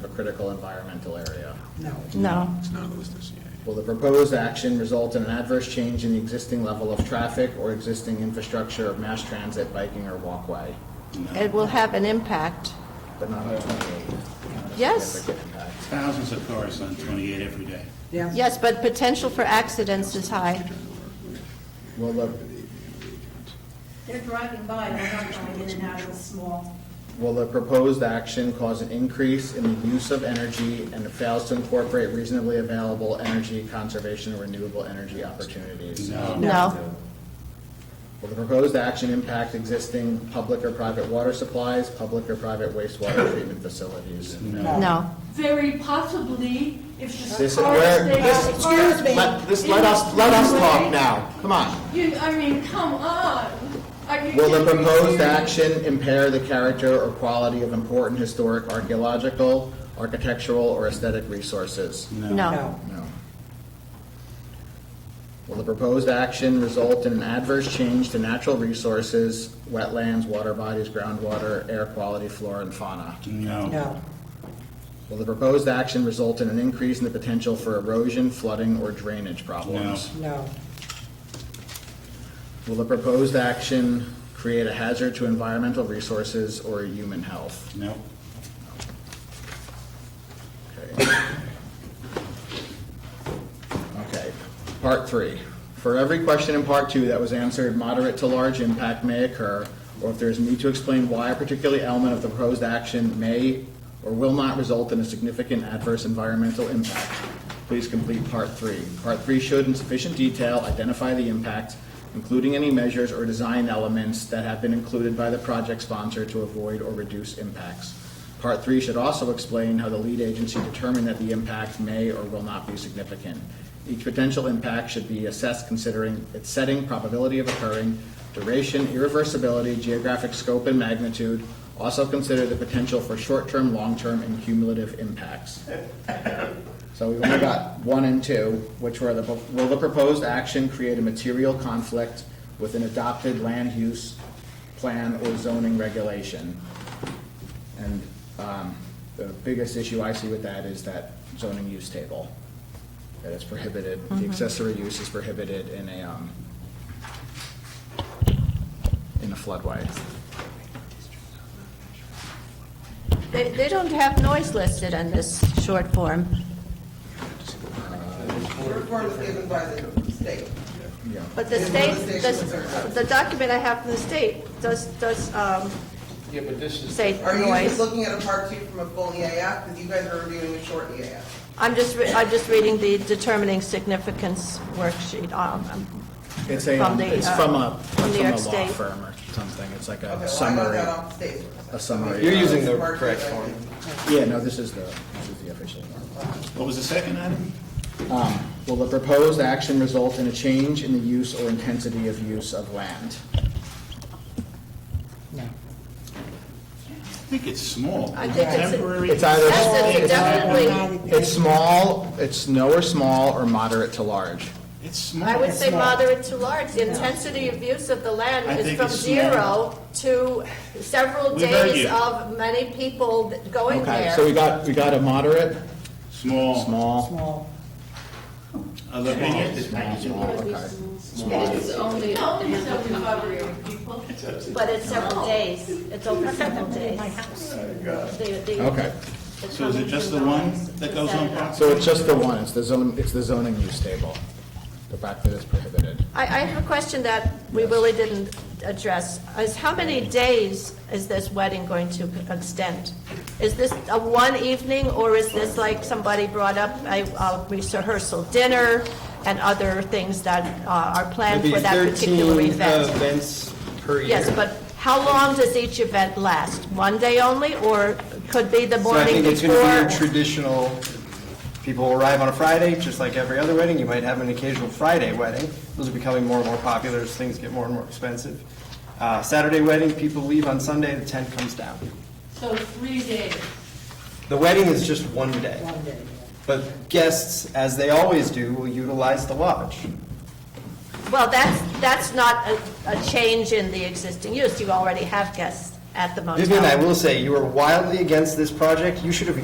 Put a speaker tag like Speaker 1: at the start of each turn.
Speaker 1: critical environmental area.
Speaker 2: No.
Speaker 3: No,
Speaker 4: It's not listed, yeah.
Speaker 1: Will the proposed action result in an adverse change in the existing level of traffic or existing infrastructure of mass transit, biking, or walkway?
Speaker 3: it will have an impact.
Speaker 1: But not on 28. not a
Speaker 3: Yes.
Speaker 1: significant impact.
Speaker 5: Thousands of cars on 28 every day.
Speaker 2: Yeah.
Speaker 3: Yes, but potential for accidents is high.
Speaker 1: Will the,
Speaker 6: They're driving by, they're not going in and out of the small.
Speaker 1: will the proposed action cause an increase in the use of energy and it fails to incorporate reasonably available energy conservation or renewable energy opportunities?
Speaker 3: No,
Speaker 1: Will the proposed action impact existing public or private water supplies, public or private wastewater treatment facilities?
Speaker 3: no.
Speaker 6: Very possibly, if the
Speaker 1: This,
Speaker 6: cars
Speaker 1: where,
Speaker 6: stay
Speaker 1: this,
Speaker 6: out of the park.
Speaker 1: excuse me, let, this, let us, let us talk now, come on.
Speaker 6: You, I mean, come on. Are you
Speaker 1: Will the
Speaker 6: kidding me?
Speaker 1: proposed action impair the character or quality of important historic archaeological, architectural, or aesthetic resources?
Speaker 3: No,
Speaker 1: No. Will the proposed action result in an adverse change to natural resources, wetlands, water bodies, groundwater, air quality, flora, and fauna?
Speaker 5: No.
Speaker 2: No,
Speaker 1: Will the proposed action result in an increase in the potential for erosion, flooding, or drainage problems?
Speaker 2: no,
Speaker 1: Will the proposed action create a hazard to environmental resources or human health?
Speaker 5: No.
Speaker 1: Okay. Okay, part three. For every question in part two that was answered, moderate to large impact may occur, or if there is need to explain why a particular element of the proposed action may or will not result in a significant adverse environmental impact, please complete part three. Part three should in sufficient detail identify the impacts, including any measures or design elements that have been included by the project sponsor to avoid or reduce impacts. Part three should also explain how the lead agency determined that the impact may or will not be significant. Each potential impact should be assessed considering its setting, probability of occurring, duration, irreversibility, geographic scope and magnitude. Also consider the potential for short-term, long-term, and cumulative impacts. So we've only got one and two, which were the, will the proposed action create a material conflict with an adopted land use plan or zoning regulation? And um, the biggest issue I see with that is that zoning use table, that it's prohibited,
Speaker 3: Mm-hmm.
Speaker 1: the accessory use is prohibited in a, um, in a floodway.
Speaker 3: they, they don't have noise listed in this short form.
Speaker 7: Report was given by the state.
Speaker 1: Yeah.
Speaker 3: But the state, the, the document I have from the state does, does, um,
Speaker 8: Yeah, but this is,
Speaker 3: say
Speaker 7: Are you
Speaker 3: noise.
Speaker 7: just looking at a part two from a full EAF? Because you guys are reviewing a short EAF.
Speaker 3: I'm just, re- I'm just reading the determining significance worksheet, um,
Speaker 1: It's a,
Speaker 3: From
Speaker 1: um,
Speaker 3: the,
Speaker 1: it's
Speaker 3: uh,
Speaker 1: from a,
Speaker 3: from New
Speaker 1: from a
Speaker 3: York
Speaker 1: law
Speaker 3: State.
Speaker 1: firm or something, it's like
Speaker 7: Okay,
Speaker 1: a
Speaker 7: well, I got
Speaker 1: summary.
Speaker 7: that off the state.
Speaker 1: A summary.
Speaker 7: So
Speaker 1: You're
Speaker 7: it's
Speaker 8: using the
Speaker 7: part two,
Speaker 8: correct
Speaker 7: I
Speaker 8: form.
Speaker 7: think.
Speaker 1: Yeah, no, this is the, this is the official one.
Speaker 5: What was the second item?
Speaker 1: Will the proposed action result in a change in the use or intensity of use of land?
Speaker 2: no.
Speaker 5: I think it's small.
Speaker 3: I think it's-
Speaker 5: Temporary-
Speaker 1: It's either-
Speaker 3: That's- that's
Speaker 1: it's-
Speaker 3: definitely-
Speaker 1: It's small, it's no or small, or moderate to large.
Speaker 5: It's small.
Speaker 3: I would say
Speaker 2: Small.
Speaker 3: moderate to large. The intensity of use of the land
Speaker 5: I
Speaker 3: is
Speaker 5: think
Speaker 3: from
Speaker 5: it's
Speaker 3: zero to several
Speaker 5: We heard
Speaker 3: days
Speaker 5: you.
Speaker 3: of many people th- going
Speaker 1: Okay, so we
Speaker 3: there.
Speaker 1: got, we got a moderate,
Speaker 5: Small.
Speaker 1: small,
Speaker 2: Small.
Speaker 5: Other opinions?
Speaker 1: okay.
Speaker 9: It's only,
Speaker 6: No, it's only five people.
Speaker 9: but it's several days, it's over several days. They- they-
Speaker 1: Okay.
Speaker 9: the
Speaker 5: So is it just the
Speaker 9: common
Speaker 5: one that goes on
Speaker 9: denominator.
Speaker 5: top?
Speaker 1: So it's just the one, it's the zone, it's the zoning use table, the fact that it's prohibited.
Speaker 3: I, I have a question that we really didn't address, is how many days is this wedding going to extend? Is this a one evening, or is this like somebody brought up a a rehearsal dinner and other things that uh, are planned
Speaker 8: maybe
Speaker 3: for that particular
Speaker 8: 13
Speaker 3: event?
Speaker 8: events per year.
Speaker 3: Yes, but how long does each event last? One day only, or could be the
Speaker 8: So I
Speaker 3: morning
Speaker 8: think it's going to be your
Speaker 3: before?
Speaker 8: traditional, people arrive on a Friday, just like every other wedding. You might have an occasional Friday wedding. Those are becoming more and more popular as things get more and more expensive. Uh, Saturday wedding, people leave on Sunday, the tent comes down.
Speaker 6: So three days.
Speaker 8: The wedding is just one day.
Speaker 2: One day.
Speaker 8: But guests, as they always do, will utilize the lodge.
Speaker 3: Well, that's, that's not a, a change in the existing use. You already have guests at the motel.
Speaker 8: Vivian, I will say, you are wildly against this project. You should have